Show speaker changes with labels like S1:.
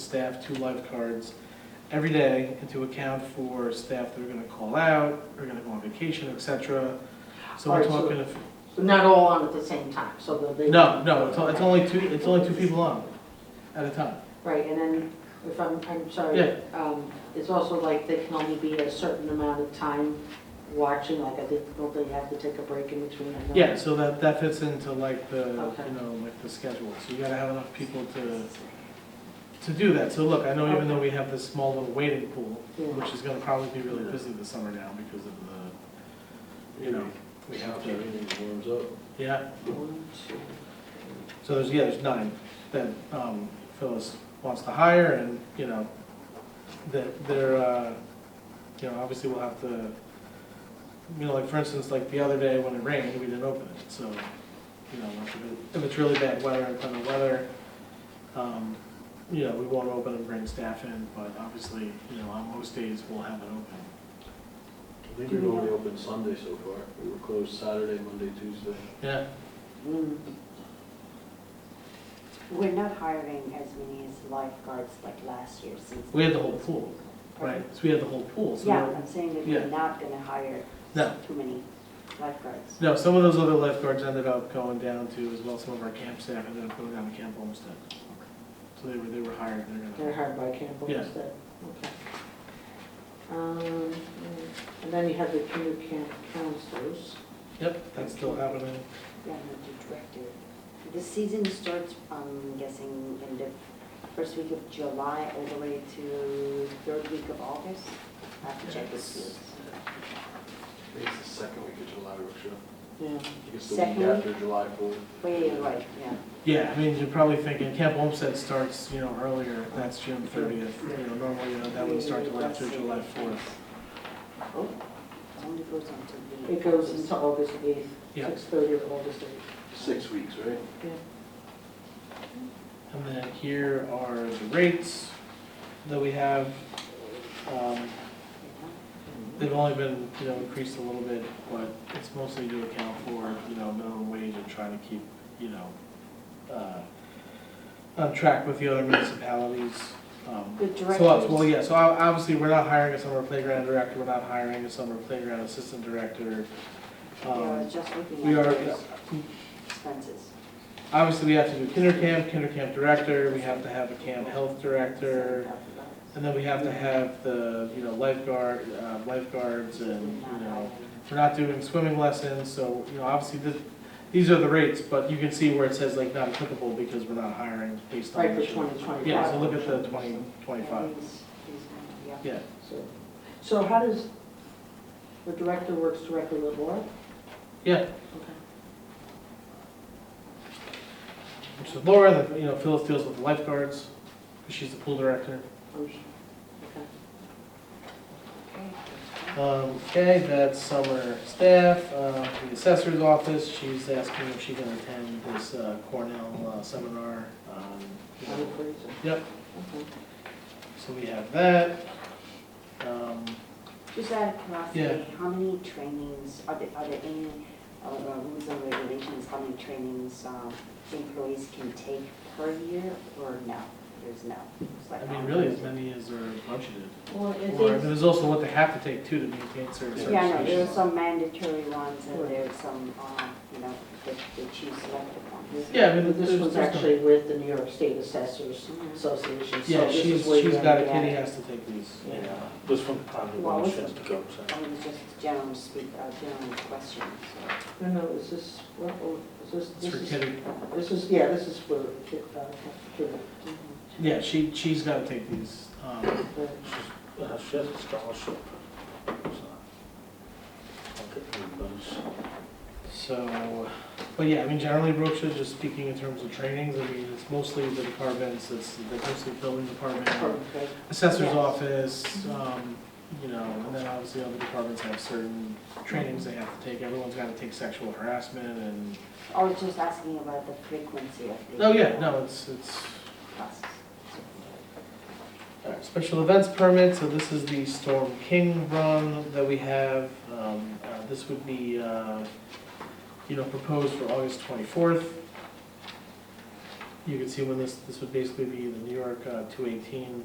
S1: staff two lifeguards every day and to account for staff that are gonna call out, are gonna go on vacation, et cetera. So we're
S2: Alright, so-
S1: talking, if-
S2: So not all on at the same time, so they'll be.
S1: no, no, it's o- it's only two, it's only two people on at a time.
S2: Right, and then if I'm, I'm
S1: Yeah.
S2: sorry, um, it's also like they can only be a certain amount of time watching, like I did, don't they have to take a break in between? I know.
S1: Yeah, so that, that fits into like the,
S2: Okay.
S1: you know, like the schedule, so you gotta have enough people to, to do that. So look, I know even though we have this small little waiting pool,
S2: Yeah.
S1: which is gonna probably be really busy this summer now because of the, you know, we have to,
S3: warms up.
S1: yeah,
S2: One, two,
S1: so there's, yeah, there's nine that, um, Phyllis wants to hire and, you know, that they're, uh, you know, obviously we'll have to, you know, like for instance, like the other day when it rained, we didn't open it, so, you know, if it- if it's really bad weather, inclement weather, um, you know, we won't open and bring staff in, but obviously, you know, on most days we'll have it open.
S3: I think we've only opened Sunday so far. We were closed Saturday, Monday, Tuesday.
S1: Yeah,
S2: mm.
S4: We're not hiring as many as lifeguards like last year since.
S1: we had the whole pool, right, so we had the whole pool, so.
S4: Yeah, I'm saying that
S1: Yeah.
S4: we're not gonna hire
S1: No.
S4: too many lifeguards.
S1: No, some of those other lifeguards ended up going down to, as well, some of our camp staff ended up going down to Camp Olmsted. So they were, they were hired, they're gonna.
S2: They're hired by Campbell
S1: Yeah.
S2: instead, okay. Um, And then you have the community camp counselors.
S1: Yep, that's still happening.
S4: Yeah, I'm the director. The season starts, I'm guessing, in the first week of July all the way to third week of August. I have to check the
S3: Yes.
S4: schools.
S3: I think it's the second week of July, we're sure.
S2: Yeah.
S3: I think it's the
S4: Second
S3: week
S4: week?
S3: after July 4th.
S4: Wait, yeah, right, yeah.
S1: Yeah, I mean, you're probably thinking Camp Olmsted starts, you know, earlier, that's June thirtieth, you know, normally, you know, that would start till after July fourth.
S4: Oh, it only goes on to the.
S2: It goes into August eighth,
S1: Yeah.
S2: six thirty of August eighth.
S3: Six weeks, right?
S1: And then here are the rates that we have. Um, They've only been, you know, increased a little bit, but it's mostly to account for, you know, minimum wage and trying to keep, you know, uh, on track with the other municipalities. Um,
S4: The
S1: So, uh, well,
S4: directors.
S1: yeah, so ob- obviously, we're not hiring a summer playground director, we're not hiring a summer playground assistant director.
S4: We are
S1: Um,
S4: just
S1: We
S4: looking at
S1: are,
S4: those expenses.
S1: obviously, we have to do kinder camp, kinder camp director, we have to have a camp health director.
S4: $7,000.
S1: And then we have to have the, you know, lifeguard, uh, lifeguards and, you know, we're not doing swimming lessons, so, you know, obviously the, these are the rates, but you can see where it says like not applicable because we're not hiring based on.
S2: Right, for
S1: issue.
S2: twenty twenty-five.
S1: Yeah, so look at the twenty, twenty-five.
S4: These- these ones, yeah.
S1: Yeah,
S2: So- So how does, the director works directly with Laura?
S1: yeah,
S2: Okay.
S1: which is Laura, that, you know, Phyllis deals with the lifeguards, 'cause she's the pool director.
S2: I'm sh- okay.
S1: Um, okay, that's summer staff, uh, the assessor's office, she's asking if she can attend this uh, Cornell uh, seminar. um, you know,
S2: I'm afraid so.
S1: Yep,
S2: Okay.
S1: so we have that. Um,
S4: Just out of curiosity,
S1: Yeah.
S4: how many trainings, are there, are there any, uh, uh, rules and regulations, how many trainings, um, employees can take per year, or no? There's no. It's like-
S1: I mean, really, as many as are budgeted.
S2: Well, it
S1: Or
S2: is,
S1: there's also what they have to take too to maintain certain
S4: Yeah, no, there are
S1: certifications.
S4: some mandatory ones,
S2: Right.
S4: and there are some, uh, you know, that they choose selective ones.
S1: Yeah, I mean,
S2: but this
S1: there's,
S2: was
S1: there's no-
S2: actually with the New York State Assessors
S4: Mhm.
S2: Association, so
S1: yeah,
S2: this
S1: she's,
S2: is where
S1: she's
S2: you
S1: got
S2: have
S1: a
S2: to
S1: kid, he
S2: get.
S1: has to take these. uh,
S2: Yeah.
S5: Just from the time of
S4: Well,
S5: when
S4: it's-
S5: she has to go, so.
S4: I mean, just general speak, uh, general questions, so.
S2: No, no, is this, what, oh, is this,
S1: It's
S2: this
S1: for
S2: is,
S1: kidding.
S2: this is, yeah, this is for, kid- uh, kid-
S1: Yeah, she, she's gotta take these. Um,
S2: uh,
S5: She's- uh, She has a scholarship. so I'll get rid of those.
S1: So, but yeah, I mean, generally, Brookshire, just speaking in terms of trainings, I mean, it's mostly the departments, it's the mostly building department,
S2: department head.
S1: assessor's
S4: Yes.
S1: office, um, you know, and then obviously other departments have certain trainings they have to take. Everyone's gotta take sexual harassment and,
S4: I was just asking about the frequency of the.
S1: oh yeah, no, it's, it's,
S4: Classes.
S1: all right, special events permit, so this is the Storm King run that we have. Um, uh, this would be, uh, you know, proposed for August twenty-fourth. you could see when this, this would basically be the New York uh, 218